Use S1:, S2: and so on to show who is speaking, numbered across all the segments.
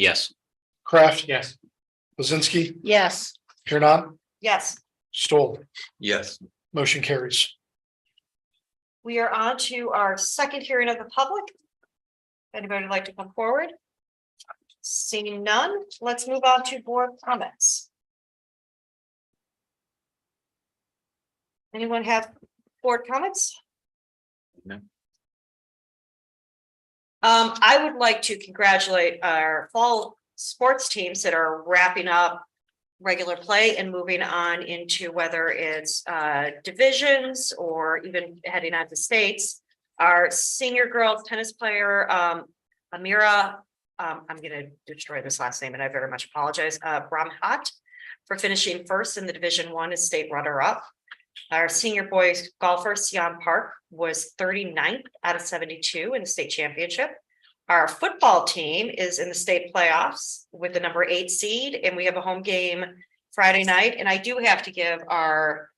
S1: Yes.
S2: Kraft,
S3: Yes.
S2: Lizinski,
S4: Yes.
S2: Kieran,
S4: Yes.
S2: Stoll,
S1: Yes.
S2: motion carries.
S4: We are on to our second hearing of the public. If Anybody would like to come forward? Seeing none, let's move on to board comments. Anyone have board comments?
S1: No.
S4: Um, I would like to congratulate our fall sports teams that are wrapping up regular play and moving on into whether it's uh divisions or even heading out to states. Our senior girls tennis player, um, Amira, um, I'm gonna destroy this last name and I very much apologize, uh, Brahmat for finishing first in the Division One as state runner-up. Our senior boys golfer, Sian Park, was 39th out of seventy-two in the state championship. Our football team is in the state playoffs with the number eight seed, and we have a home game Friday night, and I do have to give our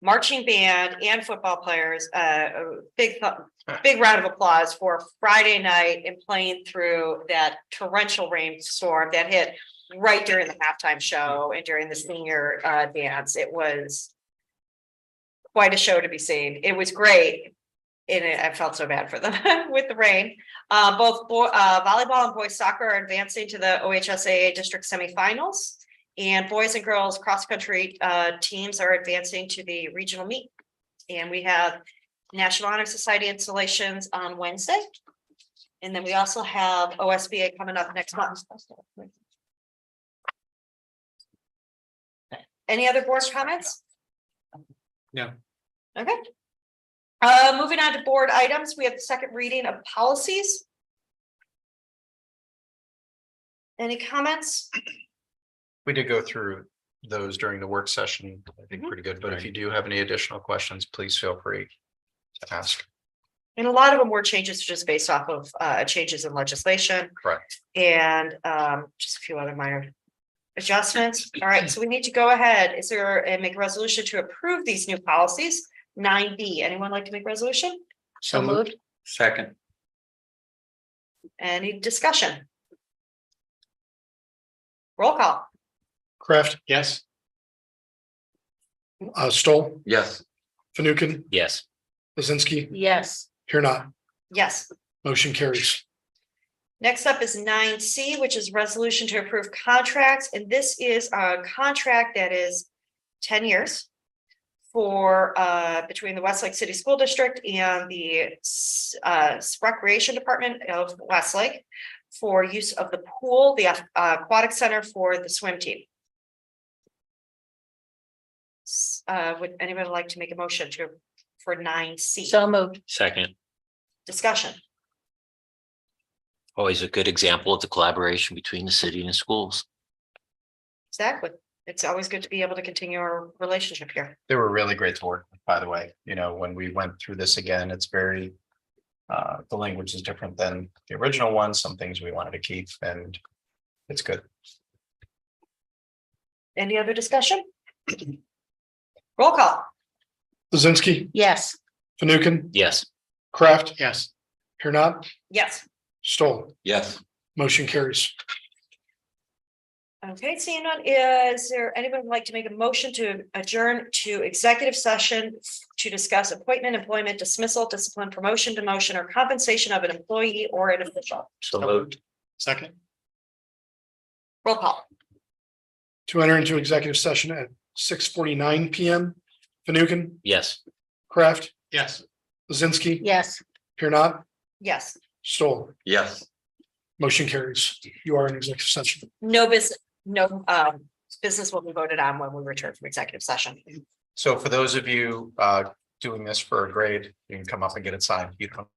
S4: marching band and football players uh, a big, th- big round of applause for Friday night and playing through that torrential rainstorm that hit right during the halftime show and during the senior uh, dance. It was quite a show to be seen. It was great. And I I felt so bad for them with the rain. Uh, both bo- uh, volleyball and boys soccer are advancing to the OHSAA district semifinals. And boys and girls cross-country, uh, teams are advancing to the regional meet. And we have National Honor Society installations on Wednesday. And then we also have OSBA coming up next month. Any other board comments?
S3: No.
S4: Okay. Uh, moving on to board items, we have the second reading of policies. Any comments?
S3: We did go through those during the work session, I think
S4: Mhm.
S3: pretty good, but if you do have any additional questions, please feel free to ask.
S4: And a lot of them were changes just based off of uh changes in legislation.
S3: Correct.
S4: And um just a few other minor adjustments. All right, so we need to go ahead. Is there and make a resolution to approve these new policies? Nine B, anyone like to make a resolution?
S3: So moved.
S1: Second.
S4: Any discussion? Roll call.
S2: Kraft,
S3: Yes.
S2: uh, Stoll,
S1: Yes.
S2: Fanukin,
S1: Yes.
S2: Lizinski,
S4: Yes.
S2: Kieran,
S4: Yes.
S2: motion carries.
S4: Next up is nine C, which is resolution to approve contracts, and this is a contract that is ten years. For uh between the Westlake City School District and the s- uh Recreation Department of Westlake. For use of the pool, the uh, aquatic center for the swim team. S- Uh, would anybody like to make a motion to for nine C
S5: moved.
S1: Second.
S4: discussion?
S1: Always a good example of the collaboration between the city and the schools.
S4: Exactly. It's always good to be able to continue our relationship here.
S3: They were really great to work, with, by the way, you know, when we went through this again, it's very. Uh, the language is different than the original one, some things we wanted to keep and it's good.
S4: Any other discussion? Roll call.
S2: Lizinski,
S5: Yes.
S2: Fanukin,
S1: Yes.
S2: Kraft,
S3: Yes.
S2: Kieran,
S4: Yes.
S2: Stoll,
S1: Yes.
S2: motion carries.
S4: Okay, seeing none, is there anyone who'd like to make a motion to adjourn to executive session to discuss appointment, employment dismissal, discipline, promotion, demotion, or compensation of an employee or an official?
S1: So moved.
S2: Second.
S4: Roll call.
S2: To enter into executive session at six forty-nine PM. Fanukin,
S1: Yes.
S2: Kraft,
S3: Yes.
S2: Lizinski,
S5: Yes.
S2: Kieran,
S4: Yes.
S2: Stoll,
S1: Yes.
S2: motion carries. You are in executive session.
S4: No business, no um business will be voted on when we return from executive session.
S3: So for those of you uh doing this for a grade, you can come up and get it signed. You don't